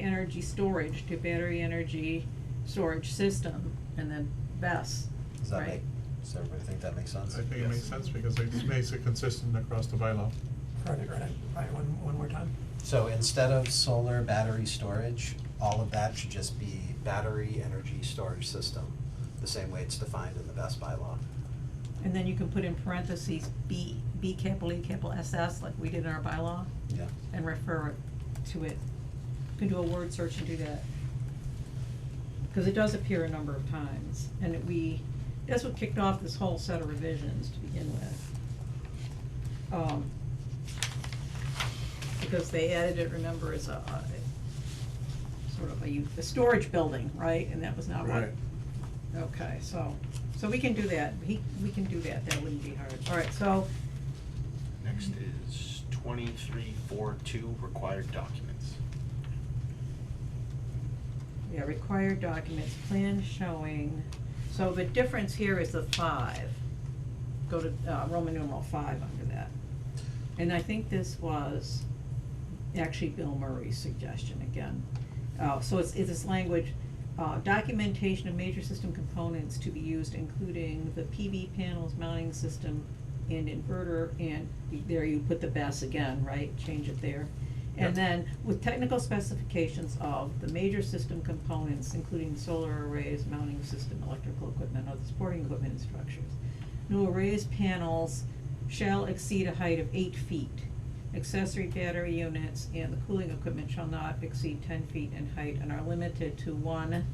energy storage to battery energy storage system, and then BES, Does that right? make, does everybody think that makes sense? I think it Yes. makes sense because it makes it consistent across the bylaw. Right, right, right, one, one more time. So instead of solar battery storage, all of that should just be battery energy storage system, the same way it's defined in the best bylaw. And then you can put in parentheses B, B capital E capital SS, like we did in our bylaw, Yeah. and refer it to it. You can do a word search and do that. Because it does appear a number of times, and it- we, that's what kicked off this whole set of revisions to begin with. Um, Because they added it, remember, as a, a- sort of a, u- a storage building, right? And that was not what. Right. Okay, so, so we can do that, he, we can do that, that wouldn't be hard. All right, so, Next is twenty-three four two, required documents. Yeah, required documents, plan showing, so the difference here is the five. Go to, uh, Roman numeral five under that. And I think this was actually Bill Murray's suggestion again. Uh, so it's, it's this language, uh, documentation of major system components to be used, including the PV panels, mounting system, and inverter, and there you put the BES again, right? Change it there. And Yep. then with technical specifications of the major system components, including solar arrays, mounting system, electrical equipment, other supporting equipment and structures. New arrays panels shall exceed a height of eight feet. Accessory battery units and the cooling equipment shall not exceed ten feet in height and are limited to one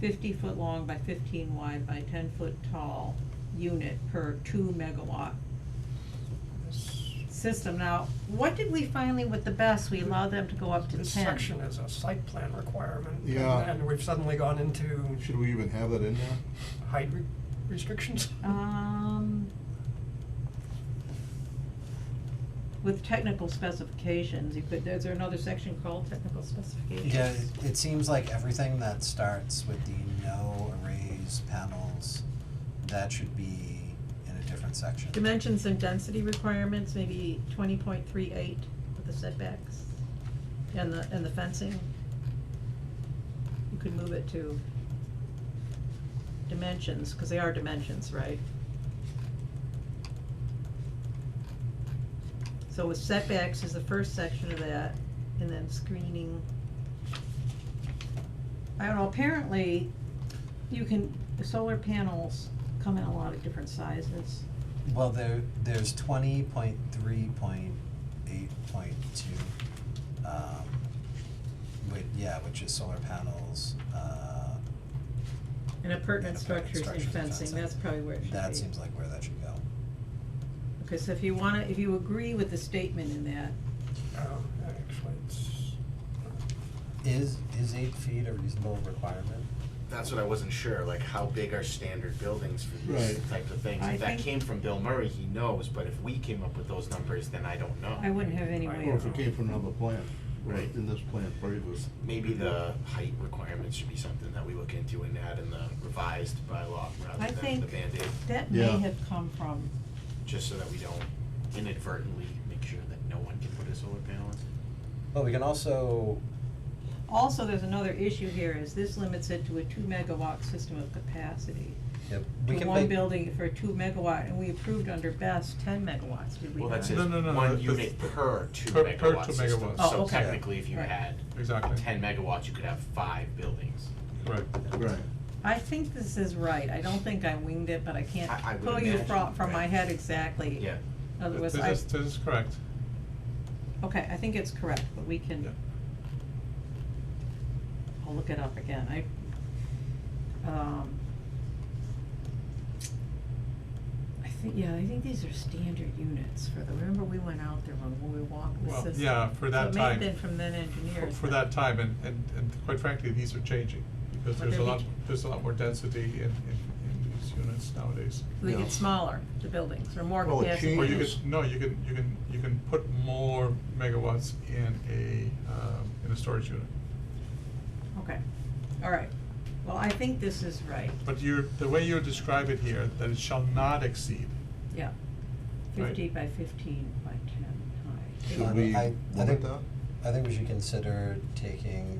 fifty-foot long by fifteen wide by ten-foot tall unit per two megawatt This, system. Now, what did we finally with the best, we allowed them to go up to ten? this section is a site plan requirement. and Yeah. then we've suddenly gone into Should we even have that in there? height re- restrictions. Um, with technical specifications, you could, is there another section called technical specifications? Yeah, it- it seems like everything that starts with the no arrays panels, that should be in a different section. Dimensions and density requirements, maybe twenty point three eight with the setbacks and the, and the fencing. You could move it to dimensions, cause they are dimensions, right? So with setbacks is the first section of that, and then screening. I don't know, apparently you can, the solar panels come in a lot of different sizes. Well, there, there's twenty point three point eight point two, um, which, yeah, which is solar panels, uh, And appurtenant And appurtenant structures and structures and fencing, fencing. that's probably where it should be. that seems like where that should go. Because if you wanna, if you agree with the statement in that, Um, actually, it's, Is, is eight feet a reasonable requirement? That's what I wasn't sure, like how big are standard buildings for these Right. types of things? I If that think- came from Bill Murray, he knows, but if we came up with those numbers, then I don't know. I wouldn't have any Right. way Or if of, it came from another plant, or Right. in this plant previous. Maybe the height requirements should be something that we look into and add in the revised bylaw I rather than the think- Band-Aid, that may Yeah. have come from, just so that we don't inadvertently make sure that no one can put a solar panel in. Well, we can also, also, there's another issue here, is this limits it to a two megawatt system of capacity. yep, we To can one make- building for a two megawatt, and we approved under best ten megawatts, did we Well, not? that says No, no, no, no, one that's- unit per two per- per two megawatt system, megawatts. Oh, so okay. technically if you Right. had Exactly. ten megawatts, you could have five buildings. Right. Right. I think this is right, I don't think I winged it, but I can't I- I would pull you from, imagine, from my right. head exactly. Yeah, Otherwise, I, This is, this is correct. okay, I think it's correct, but we can. Yeah. I'll look it up again, I, um. I think, yeah, I think these are standard units for the, remember we went out there when we walked the Well, system? yeah, for that So it may have time. been from then For- engineers. For that time, and, and, and quite frankly, these are changing, because But there's a they're lot, big. there's a lot more density in, in, in these units nowadays. They Yeah. get smaller, the buildings, or more Well, it capacity. Or you Yes. could, no, you can, you can, you can put more megawatts in a, um, in a storage unit. Okay, all right, well, I think this is right, But you're, the way you describe it here, that it shall not exceed, yeah. Right. Fifty by fifteen by ten high. Uh, Should we I- I limit think- that? I think we should consider taking